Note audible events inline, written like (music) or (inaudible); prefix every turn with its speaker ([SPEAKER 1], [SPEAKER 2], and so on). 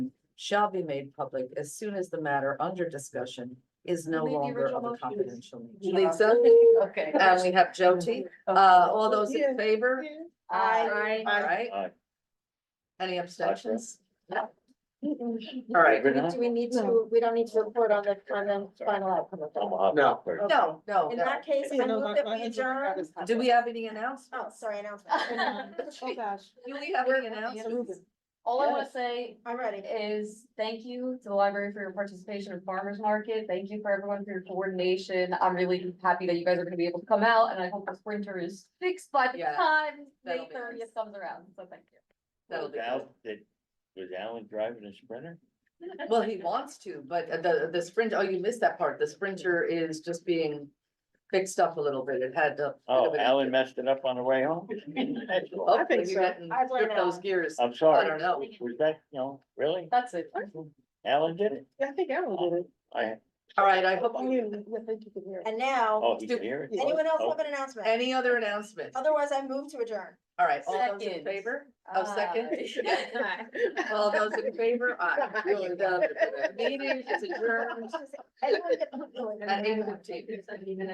[SPEAKER 1] shall be made public as soon as the matter under discussion is no
[SPEAKER 2] Leave the
[SPEAKER 1] longer
[SPEAKER 2] original
[SPEAKER 1] of a
[SPEAKER 2] motion.
[SPEAKER 1] confidential. nature.
[SPEAKER 2] Yeah.
[SPEAKER 1] Lisa,
[SPEAKER 2] Okay.
[SPEAKER 1] and we have Jody,
[SPEAKER 3] Oh,
[SPEAKER 1] uh, all those in favor?
[SPEAKER 3] Um,
[SPEAKER 2] Aye.
[SPEAKER 1] All right,
[SPEAKER 4] Aye.
[SPEAKER 1] any abstentions? All
[SPEAKER 3] All
[SPEAKER 1] right.
[SPEAKER 3] Do we need to, we don't need to report on the, on the final outcome of that?
[SPEAKER 4] No.
[SPEAKER 1] No, no,
[SPEAKER 3] In
[SPEAKER 1] no.
[SPEAKER 3] that case, I move that we adjourn.
[SPEAKER 1] Do we have any announcements?
[SPEAKER 3] Oh, sorry, announcement. (laughs)
[SPEAKER 5] Oh,
[SPEAKER 1] (laughs)
[SPEAKER 5] gosh.
[SPEAKER 1] Do we have any announcements?
[SPEAKER 2] All I wanna
[SPEAKER 3] Yes.
[SPEAKER 2] say
[SPEAKER 3] I'm ready.
[SPEAKER 2] is thank you to the library for your participation in farmer's market. Thank you for everyone for your coordination. I'm really happy that you guys are gonna be able to come out and I hope this winter is fixed by the
[SPEAKER 1] Yeah,
[SPEAKER 2] time
[SPEAKER 1] that'll
[SPEAKER 2] May
[SPEAKER 1] be nice.
[SPEAKER 2] thirtieth comes around. So thank you.
[SPEAKER 1] That'll Oh,
[SPEAKER 4] Was
[SPEAKER 1] be good.
[SPEAKER 4] Al- did- was Alan driving a Sprinter?
[SPEAKER 1] Well, he wants to, but the, the Sprinter, oh, you missed that part. The Sprinter is just being fixed up a little bit. It had a.
[SPEAKER 4] Oh, Alan messed it up on the
[SPEAKER 1] (laughs)
[SPEAKER 4] way home?
[SPEAKER 5] Oh,
[SPEAKER 3] I
[SPEAKER 1] Hopefully
[SPEAKER 3] think
[SPEAKER 1] you
[SPEAKER 3] so.
[SPEAKER 1] didn't
[SPEAKER 3] I've
[SPEAKER 1] rip
[SPEAKER 3] learned
[SPEAKER 1] those
[SPEAKER 3] Alan.
[SPEAKER 1] gears.
[SPEAKER 4] I'm sorry.
[SPEAKER 1] I don't know.
[SPEAKER 4] Was that, you know, really?
[SPEAKER 2] That's it.
[SPEAKER 4] Alan did it?
[SPEAKER 5] I think Aaron
[SPEAKER 1] (laughs)
[SPEAKER 5] did it.
[SPEAKER 4] I,
[SPEAKER 1] All right, I hope,
[SPEAKER 5] Oh, yeah, I think you can hear it.
[SPEAKER 3] And now,
[SPEAKER 4] oh, he's here?
[SPEAKER 3] anyone else
[SPEAKER 4] Oh,
[SPEAKER 3] have an announcement?
[SPEAKER 1] any other announcements?
[SPEAKER 3] Otherwise, I move to adjourn.
[SPEAKER 1] All right, all those in
[SPEAKER 2] Second.
[SPEAKER 1] favor? Oh, second? (laughs)
[SPEAKER 2] Aye.
[SPEAKER 1] All those in favor? Aye.
[SPEAKER 2] Uh,
[SPEAKER 1] The Meeting is adjourned (laughs)
[SPEAKER 3] (laughs) Anyone get-
[SPEAKER 1] at eight fifteen.